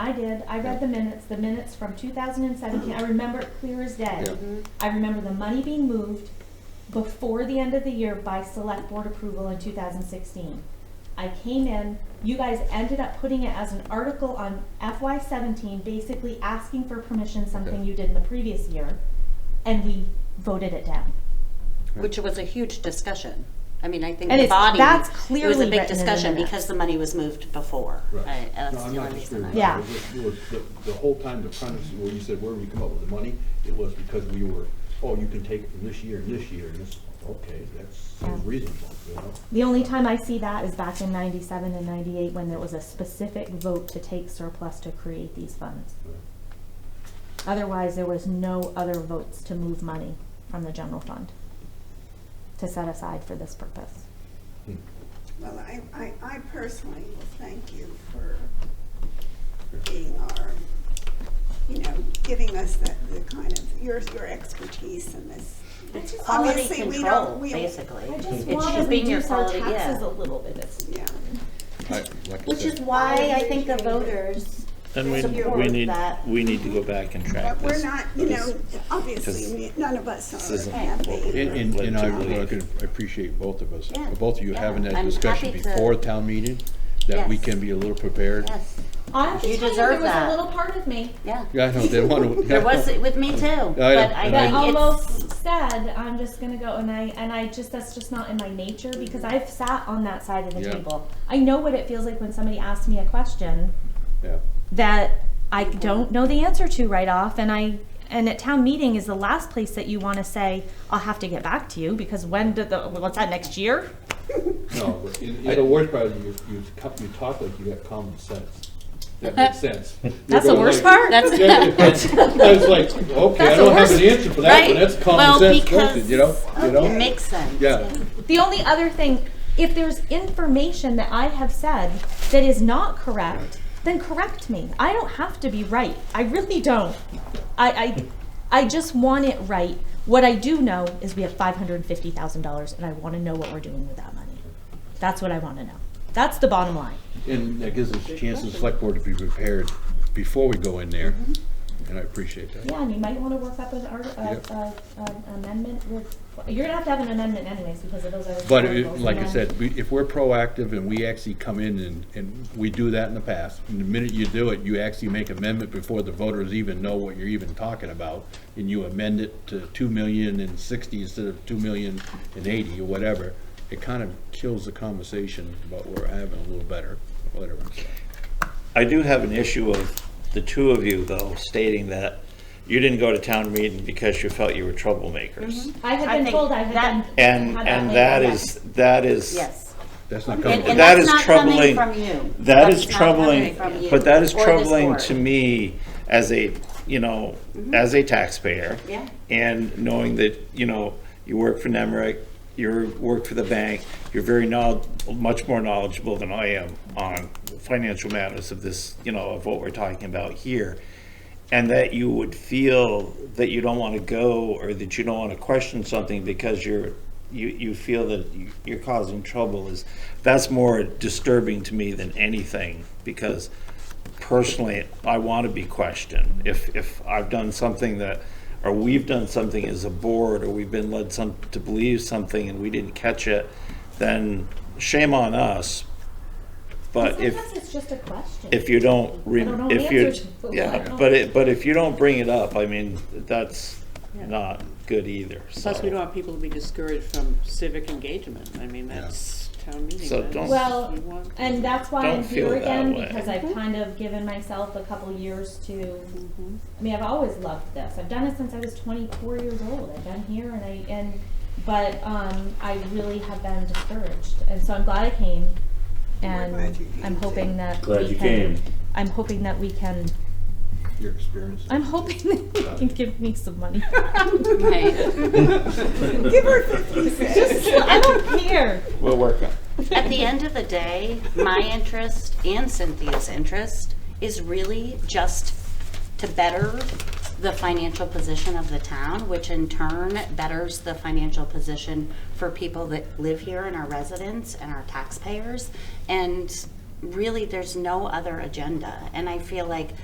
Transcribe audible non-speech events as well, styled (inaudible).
I did, I read the minutes, the minutes from two thousand and seventeen, I remember it clear as day. Yeah. Mm-hmm. I remember the money being moved before the end of the year by select board approval in two thousand sixteen. I came in, you guys ended up putting it as an article on FY seventeen, basically asking for permission, something Okay. you did in the previous year, and we voted it down. Which was a huge discussion. I mean, I think And the it's- body, that's it was clearly a written big in the discussion minutes. because the money was moved before. Right. I- That's No, I'm the not only reason disagreeing I. with Yeah. that. It was- it was the- The whole time the premise, where you said, where do we come up with the money? It was because we were, oh, you can take it from this year and this year, and this, okay, that's sounds Yeah. reasonable, you know? The only time I see that is back in ninety-seven and ninety-eight, when there was a specific vote to take surplus to create these funds. Otherwise, there was no other votes to move money from the general fund to set aside for this purpose. Hmm. Well, I, I, I personally will thank you for being our, you know, giving us the, the kind of, your, your expertise in this. It's quality Obviously, we control, don't- we- basically. I just It want should to be your reduce our quality, yeah. taxes a little bit. It's- Yeah, I- like I Which said, is why I think the voters And we, we support need, that. we need to go back and track but we're this. not, you know, because obviously, because none of us this are isn't happy. And, and, and I uh, Relatively. really could appreciate both of us, Yeah. both of you Yeah. having that I'm discussion happy to- before town meeting, that we Yes. can be a little prepared. Yes, I have to You tell you, deserve there was a that. little part of me yeah. Yeah, I know, they want (laughs) to. (laughs) There was, with me too, but I and that I- think it's, almost said, "I'm just gonna go," and I and I just that's just not in my nature because I've sat on that side of the Yeah. table. I know what it feels like when somebody asks me a question Yeah, that I don't know the answer to right off, and I and at town meeting is the last place that you want to say, "I'll have to get back to you," because when did the what's that next year? No, but you know, the worst part is you, you, co- you talk like you got common sense. That (laughs) makes sense. You're That's the going worst like- part. that's, Yeah, yeah, that's- I was like, okay, I That's the don't have worst, an answer for that, right? but that's Well, common sense, because- bullshit, you know, you it know? makes sense. Yeah. The only other thing, if there's information that I have said that is not correct, then correct me. I don't have to be right. I really don't. I, I, I just want it right. What I do know is we have five hundred and fifty thousand dollars and I wanna know what we're doing with that money. That's what I wanna know. That's the bottom line. and that gives us a chance as select board to be prepared before we go in there, Mm-hmm. and I appreciate that. Yeah, and you might wanna work up an art, Yep. amendment with, you're gonna have to have an amendment anyways because of those other. But it- like I said, we- if we're proactive and we actually come in and, and we do that in the past, and the minute you do it, you actually make amendment before the voters even know what you're even talking about, and you amend it to two million and sixty instead of two million and eighty or whatever, it kind of kills the conversation about what we're having a little better, whatever. I do have an issue of the two of you though stating that you didn't go to town meeting because you felt you were troublemakers. I I had been think told I had Mm-hmm. that- been. And, had and label, that yes. is, that (laughs) is. Yes. That's not And, coming. and That that's is not coming troubling. from you. That That's is not coming troubling, from you but that is or this troubling board. to me as a, you know, as a taxpayer. Yeah. And knowing that, you know, you work for Nemrick, you work for the bank, you're very knowl, much more knowledgeable than I am on financial matters of this, you know, of what we're talking about here. And that you would feel that you don't want to go or that you don't want to question something because you're, you, you feel that you- you're causing trouble is, that's more disturbing to me than anything because personally, I want to be questioned. If, if I've done something that, or we've done something as a board, or we've been led some, to believe something and we didn't catch it, then shame on us. But if, Sometimes it's just a question. if you don't, re- I don't know if the you, answer to it. I yeah, don't- but it, but if you don't bring it up, I mean, that's not good either, so. Plus, we don't want people to be discouraged from civic engagement. I mean, that's town meeting. So that's- don't- Well, you want- and that's why Don't I'm here feel that again, way. because I've kind of given myself a couple years to, I mean, I've always loved this, I've done it since I was twenty-four years old, I've been here and I, and, but, um, I really have been discouraged, and so I'm glad I came, glad and you came, I'm hoping that Glad we you can- came. I'm hoping that we can, Your experience. I'm hoping that you can give me some (laughs) money. (laughs) Right. Give her fifty Just, cents. I don't care. We'll work on it. At the end of the day, my interest and Cynthia's interest is really just to better the financial position of the town, which in turn betters the financial position for people that live here and our residents and our taxpayers. And really, there's no other agenda. And I feel like